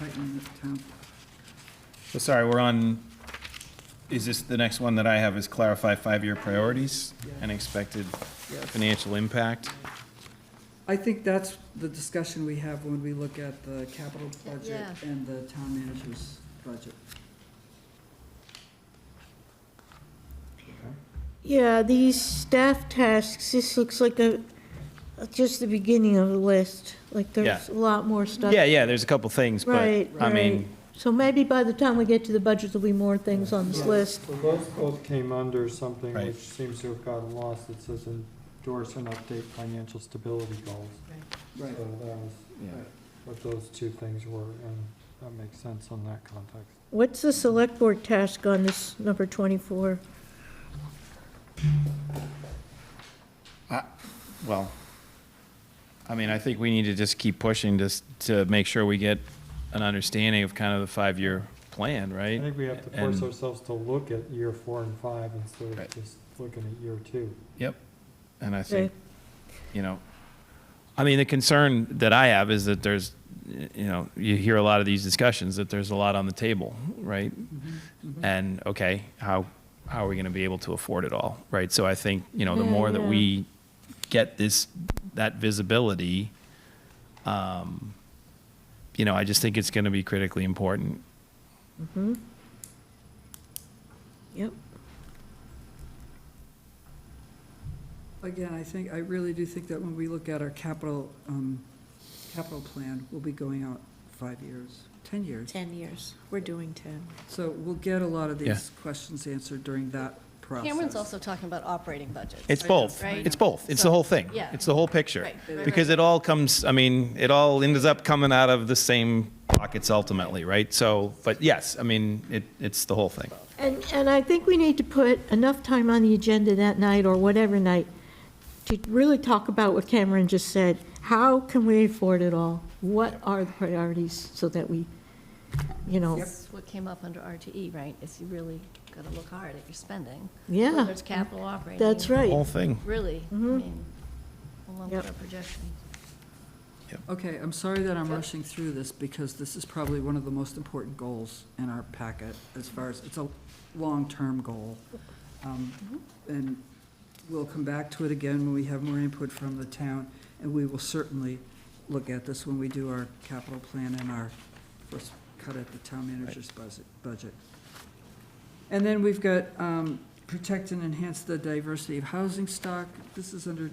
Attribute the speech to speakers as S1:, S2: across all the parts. S1: Tighten the town.
S2: So sorry, we're on, is this, the next one that I have is clarify five-year priorities and expected
S1: Yes.
S2: financial impact?
S1: I think that's the discussion we have when we look at the capital budget
S3: Yeah.
S1: and the town manager's budget.
S4: Yeah, these staff tasks, this looks like a, just the beginning of the list. Like there's a lot more stuff.
S2: Yeah, yeah, there's a couple things, but,
S4: Right,
S2: I
S4: right.
S2: mean,
S4: So maybe by the time we get to the budget, there'll be more things on this list.
S5: Well, those both came under something
S2: Right.
S5: which seems to have gotten lost. It says endorse and update financial stability goals. So
S1: Right.
S5: that was what those two things were, and that makes sense on that context.
S4: What's the select board task on this number 24?
S2: well, I mean, I think we need to just keep pushing to, s- to make sure we get an understanding of kind of the five-year plan,
S5: I
S2: right?
S5: think we have to force
S2: And-
S5: ourselves to look at year four and five instead
S2: Right.
S5: of just looking at year two.
S2: Yep. And I
S4: Okay.
S2: think, you know, I mean, the concern that I have is that there's, y- you know, you hear a lot of these discussions, that there's a lot on the table, right?
S4: Mm-hmm.
S2: And, okay, how, how are we gonna be able to afford it all, right? So I think, you know, the
S4: Yeah,
S2: more that
S4: yeah.
S2: we get this, that visibility, um, you know, I just think it's gonna be critically important.
S4: Yep.
S1: Again, I think, I really do think that when we look at our capital, um, capital plan, we'll be going out five years, 10 years.
S3: 10 years. We're doing 10.
S1: So we'll get a lot of
S2: Yeah.
S1: these questions answered during that process.
S3: Cameron's also talking about operating budgets.
S2: It's both.
S3: Right?
S2: It's both. It's the whole thing.
S3: Yeah.
S2: It's the whole picture.
S3: Right, right,
S2: Because
S3: right.
S2: it all comes, I mean, it all ends up coming out of the same pockets ultimately, right? So, but yes, I mean, it, it's the whole thing.
S4: And, and I think we need to put enough time on the agenda that night or whatever night to really talk about what Cameron just said. How can we afford it all? What are the priorities so that we, you know,
S3: That's what came up under RTE, right? Is you really got to look hard at your spending.
S4: Yeah.
S3: Whether it's capital operating.
S4: that's
S2: The
S4: right. Mm-hmm.
S2: whole thing.
S3: Really, I mean, along with
S4: Yep.
S3: our projections.
S1: Okay, I'm sorry that I'm rushing through this, because this is probably one of the most important goals in our packet, as far as, it's a long-term goal. Um, And we'll come back to it again when we have more input from the town, and we will certainly look at this when we do our capital plan and our first cut at the town manager's buzz- budget. And then we've got um, protect and enhance the diversity of housing stock. This is under,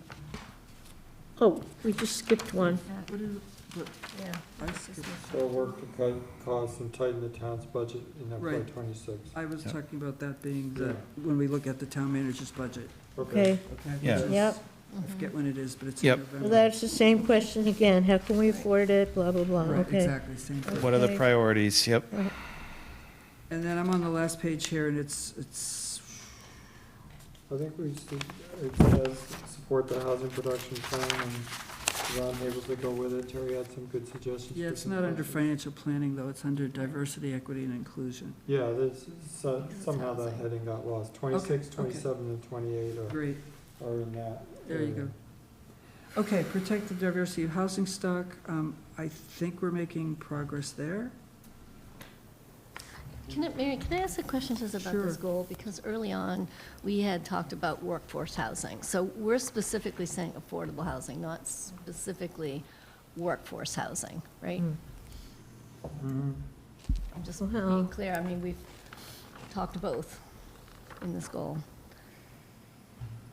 S4: Oh, we just skipped one.
S1: what is, what,
S3: Yeah.
S1: I skipped.
S5: So work to cut costs and tighten the town's budget in
S1: Right.
S5: FY twenty-six.
S1: I was
S2: Yeah.
S1: talking about that being the,
S5: Yeah.
S1: when we look at the town manager's budget.
S4: Okay.
S1: okay,
S2: Yeah.
S1: which is-
S4: Yep. Mm-hmm.
S1: I forget when it is, but it's in
S2: Yep.
S4: Well,
S1: November.
S4: that's the same question again. How can we afford it? Blah, blah, blah.
S1: Right,
S4: Okay.
S1: exactly, same thing.
S2: What are the
S4: Okay.
S2: priorities? Yep.
S1: And then I'm on the last page here, and it's, it's,
S5: I think we should, it says, support the housing production plan and Ron Haver's to go with it. Terry had some good suggestions.
S1: yeah,
S5: for
S1: it's
S5: some
S1: not under
S5: questions.
S1: financial planning, though, it's under diversity, equity, and inclusion.
S5: Yeah, this, so-
S3: It's
S5: somehow that
S3: housing.
S5: heading got lost. Twenty-six,
S1: okay.
S5: twenty-seven, and twenty-eight are,
S1: Great,
S5: are in that.
S1: there you
S5: area.
S1: go. Okay, protect the diversity of housing stock, um, I think we're making progress there.
S3: Can I, Mary, can I ask a question just about this
S1: Sure.
S3: goal? Because early on, we had talked about workforce housing. So we're specifically saying affordable housing, not specifically workforce housing, right?
S4: Mm.
S5: Mhm.
S3: I'm just
S4: Well-
S3: being clear, I mean, we've talked both in this goal.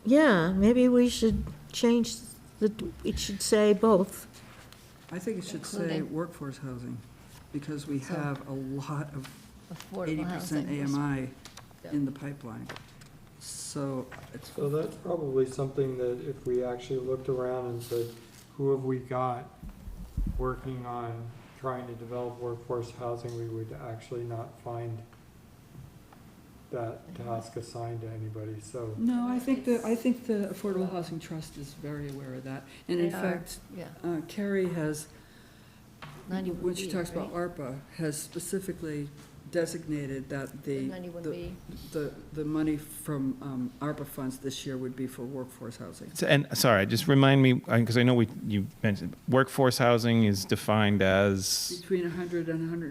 S4: Yeah, maybe we should change the, it should say both.
S1: I think it should say
S3: Including.
S1: workforce housing, because we
S3: So-
S1: have a lot of eighty
S3: Affordable
S1: percent
S3: housing.
S1: AMI
S3: Yeah.
S1: in the pipeline. So it's,
S5: So that's probably something that if we actually looked around and said, who have we got working on trying to develop workforce housing, we would actually not find that task assigned to anybody, so.
S1: no, I think the, I think the Affordable Housing Trust is very aware of that. And in
S3: They are.
S1: fact,
S3: Yeah,
S1: uh, Carrie has,
S3: ninety-one
S1: when she
S3: B,
S1: talks about
S3: right?
S1: ARPA, has specifically designated that the.
S3: Ninety-one
S1: the-
S3: B.
S1: The, the money from um, ARPA funds this year would be for workforce housing.
S2: So- And, sorry, just remind me, because I know we, you mentioned, workforce housing is defined as?
S1: Between 100 and 100